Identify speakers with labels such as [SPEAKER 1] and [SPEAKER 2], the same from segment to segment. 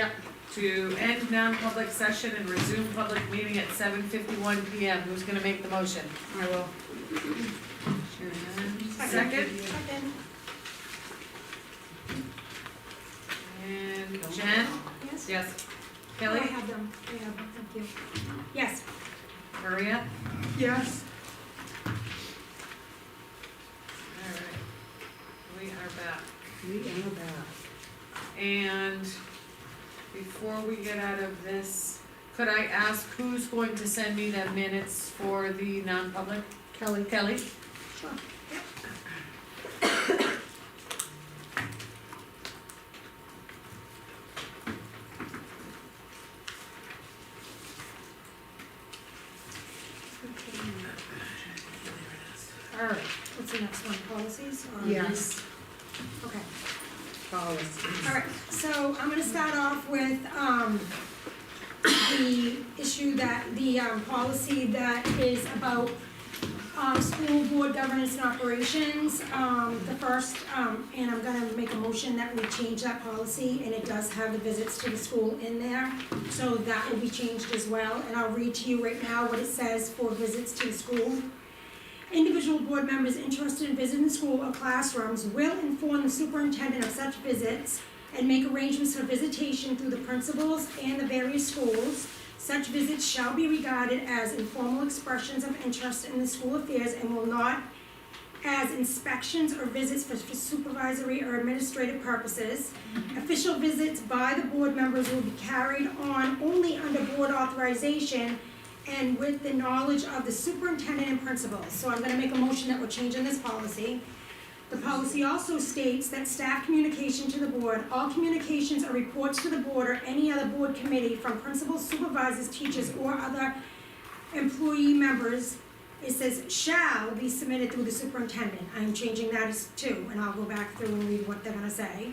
[SPEAKER 1] Yep.
[SPEAKER 2] to end non-public session and resume public meeting at seven fifty-one P M. Who's gonna make the motion?
[SPEAKER 1] I will.
[SPEAKER 2] Sharon, Second,
[SPEAKER 3] Second.
[SPEAKER 2] and Jen?
[SPEAKER 3] Yes.
[SPEAKER 2] Yes.
[SPEAKER 3] Oh, I
[SPEAKER 2] Kelly?
[SPEAKER 3] have them, I have them, thank you. Yes.
[SPEAKER 2] Maria?
[SPEAKER 1] Yes.
[SPEAKER 2] Alright, we are back.
[SPEAKER 1] We are back.
[SPEAKER 2] And before we get out of this, could I ask who's going to send me the minutes for the non-public? Kelly. Kelly?
[SPEAKER 3] Sure.
[SPEAKER 1] All right,
[SPEAKER 3] What's the next one, policies or?
[SPEAKER 1] yes,
[SPEAKER 3] Okay,
[SPEAKER 1] policies.
[SPEAKER 3] all right, so I'm gonna start off with, um, the issue that, the, um, policy that is about, um, school board governance and operations, um, the first, um, and I'm gonna make a motion that we change that policy, and it does have the visits to the school in there, so that will be changed as well, and I'll read to you right now what it says for visits to the school. Individual board members interested in visiting the school or classrooms will inform the superintendent of such visits and make arrangements for visitation through the principals and the various schools. Such visits shall be regarded as informal expressions of interest in the school affairs and will not as inspections or visits for for supervisory or administrative purposes. Official visits by the board members will be carried on only under board authorization and with the knowledge of the superintendent and principals. So I'm gonna make a motion that we're changing this policy. The policy also states that staff communication to the board, all communications or reports to the board or any other board committee from principals, supervisors, teachers, or other employee members, it says shall be submitted through the superintendent. I'm changing that as to, and I'll go back through and read what they're gonna say.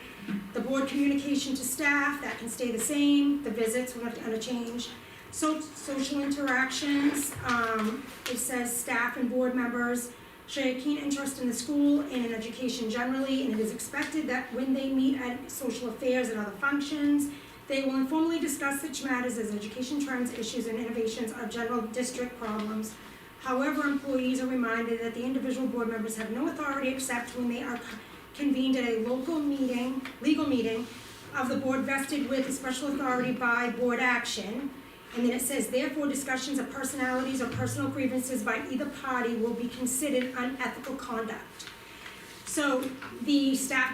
[SPEAKER 3] The board communication to staff, that can stay the same, the visits, we're not gonna change. So, social interactions, um, it says staff and board members show a keen interest in the school and in education generally, and it is expected that when they meet at social affairs and other functions, they will informally discuss such matters as education trends, issues, and innovations of general district problems. However, employees are reminded that the individual board members have no authority except when they are convened at a local meeting, legal meeting, of the board vested with a special authority by board action. And then it says, therefore, discussions of personalities or personal grievances by either party will be considered unethical conduct. So the staff